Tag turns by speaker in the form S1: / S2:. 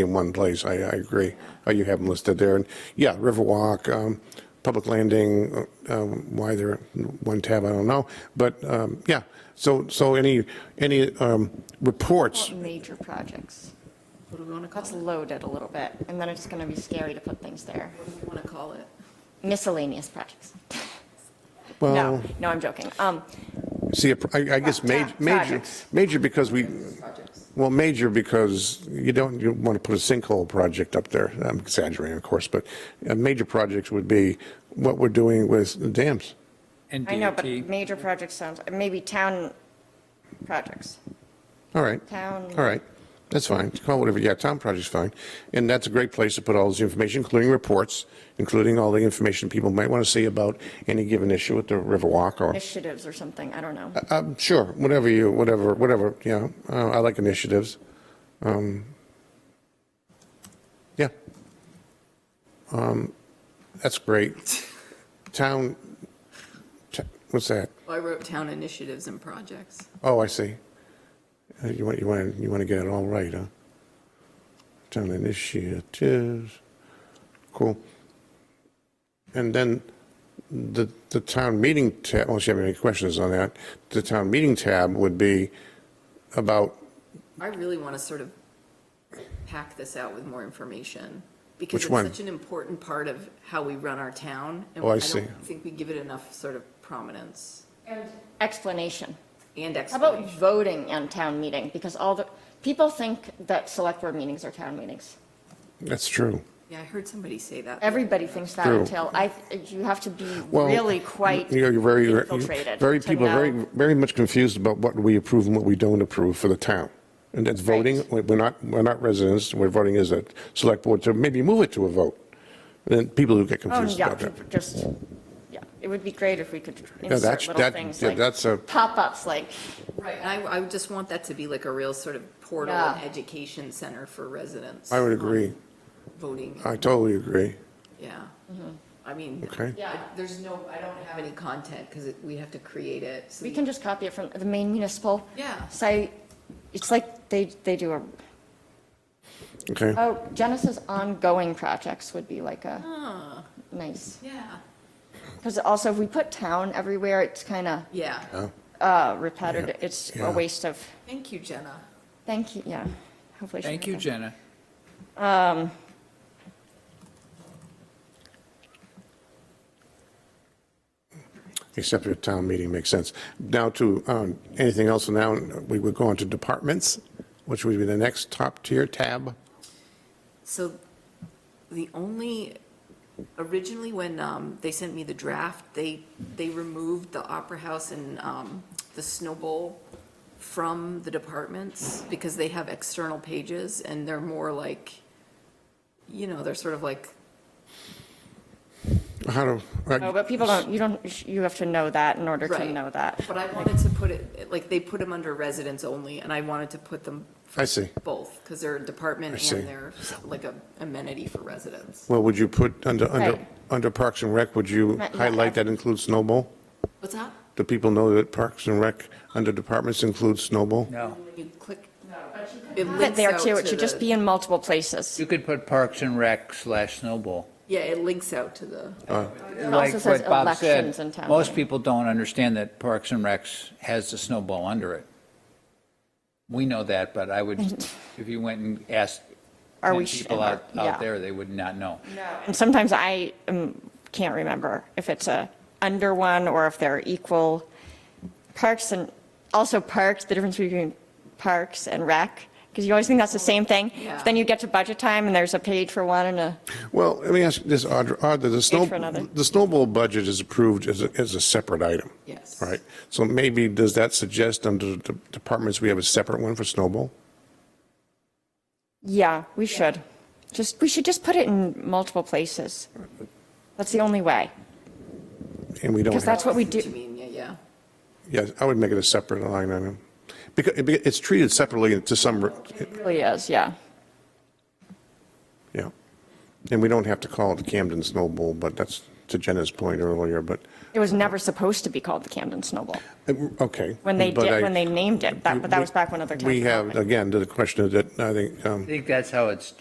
S1: in one place, I, I agree. Uh, You have them listed there, and, yeah, Riverwalk, um, Public Landing, uh, um, why they're in one tab, I don't know, but, um, yeah, so, so any, any um, reports,
S2: Major projects. What do we want to call Let's load it a little bit, and then it's going to be scary to put things there.
S3: What do you want to call it?
S2: Miscellaneous projects. No,
S1: well,
S2: no, I'm joking. Um,
S1: see, I I guess major,
S2: Pro-
S1: major,
S2: projects.
S1: major because we,
S3: Projects.
S1: well, major because you don't, you want to put a sinkhole project up there, I'm exaggerating, of course, but uh, major projects would be what we're doing with dams.
S4: And
S2: I know, but
S4: DOT,
S2: major projects sounds, maybe town projects.
S1: All right.
S2: Town-
S1: All right. That's fine. Call it whatever. Yeah, town project's fine. And that's a great place to put all this information, including reports, including all the information people might want to see about any given issue with the Riverwalk or,
S2: initiatives or something, I don't know.
S1: um, sure, whatever you, whatever, whatever, yeah. Uh, I like initiatives. Um, yeah. Um, that's great. Town, t- what's that?
S3: Well, I wrote town initiatives and projects.
S1: Oh, I see. Uh, You want, you want, you want to get it all right, huh? Town initiatives, cool. And then the, the town meeting tab, unless you have any questions on that, the town meeting tab would be about,
S3: I really want to sort of pack this out with more information. Because
S1: Which one?
S3: it's such an important part of how we run our town. and
S1: Oh, I see.
S3: don't think we give it enough sort of prominence
S2: Explanation.
S3: and
S2: How about
S3: explanation.
S2: voting and town meeting? Because all the, people think that select board meetings are town meetings.
S1: that's true.
S3: Yeah, I heard somebody say that.
S2: Everybody thinks that
S1: True.
S2: until I, you have to be
S1: Well,
S2: really quite
S1: you know, you're very- you're-
S2: infiltrated.
S1: Very,
S2: to
S1: people are very,
S2: know.
S1: very much confused about what we approve and what we don't approve for the town. And that's voting, We- we're not, we're not residents, we're voting as a select board to maybe move it to a vote. And then people who get
S2: Oh,
S1: confused
S2: yeah,
S1: about that.
S2: just, yeah, it would be great if we could
S1: that's-
S2: insert little
S1: that-
S2: things
S1: yeah,
S2: like.
S1: that's a-
S2: Pop-ups, like,
S3: Right, and I, I would just want that to be like a real sort of portal
S2: Yeah.
S3: and education center for residents.
S1: I would agree. Uh,
S3: Voting,
S1: I totally agree.
S3: yeah.
S2: Mm-hmm.
S3: I mean.
S1: Okay.
S2: Yeah.
S3: I- There's no, I don't have any content because we have to create it. so
S2: we can just copy it from the main municipal.
S3: Yeah.
S2: Site, it's like they, they do a,
S1: Okay.
S2: oh, Genesis ongoing projects would be like a nice,
S3: Yeah,
S2: because also if we put town everywhere, it's kind of
S3: yeah.
S2: uh, repetitive, it's
S1: yeah.
S2: a waste of,
S3: Thank you, Jenna.
S2: thank you, yeah, hopefully. she
S4: thank
S2: heard
S4: you,
S2: that.
S4: Jenna.
S1: Except your town meeting makes sense. Now to, um, anything else now, we would go on to departments, which would be the next top tier tab.
S3: So the only, originally when um, they sent me the draft, they, they removed the Opera House and um, the Snow Bowl from the departments because they have external pages and they're more like, you know, they're sort of like,
S1: How uh, to,
S2: No, Oh, but people don't, you don't, you have to know that in order to
S3: Right.
S2: know that.
S3: but I wanted to put it, like, they put them under residents only and I wanted to put them
S1: I see.
S3: both because they're a department
S1: see.
S3: and they're like a amenity for residents.
S1: Well, would you put, under, under,
S2: Right.
S1: under Parks and Rec, would you
S2: Not- not
S1: highlight that includes snowball?
S3: What's that?
S1: Do people know that Parks and Rec under departments includes snowball?
S4: No,
S3: You click.
S2: But there too, it should just be in multiple places.
S4: you could put Parks and Rec slash Snowball.
S3: Yeah, it links out to the.
S4: Like
S2: says
S4: what Bob said,
S2: elections in town.
S4: Most people don't understand that Parks and Recs has the Snowball under it. We know that, but I would, if you went and asked
S2: Are
S4: ten
S2: we sh-
S4: people out,
S2: yeah.
S4: out there, they would not know.
S2: And sometimes I um, can't remember if it's a under one or if they're equal. Parks and, also parks, the difference between parks and rec, because you always think that's the same thing.
S3: Yeah.
S2: Then you get to budget time and there's a page for one and a,
S1: Well, let me ask you this, Audra, Audra, the snow,
S2: for another.
S1: the snowball budget is approved as a, as a separate item.
S3: Yes.
S1: Right, so maybe, does that suggest under the departments, we have a separate one for snowball?
S2: yeah, we should. Just, we should just put it in multiple places. That's the only way,
S1: And we don't have,
S2: because that's what we
S3: What you
S2: do.
S3: mean, yeah, yeah.
S1: yes, I would make it a separate line item. Because it- it's treated separately to some,
S2: It really is, yeah.
S1: yeah. And we don't have to call it Camden Snowball, but that's to Jenna's point earlier, but,
S2: It was never supposed to be called the Camden Snowball.
S1: Uh, okay.
S2: When they
S1: but I-
S2: did, when they named it, that, but that
S1: we-
S2: was back when other towns.
S1: We
S2: called
S1: have,
S2: it.
S1: again, to the question that I think um,
S4: I think that's how it's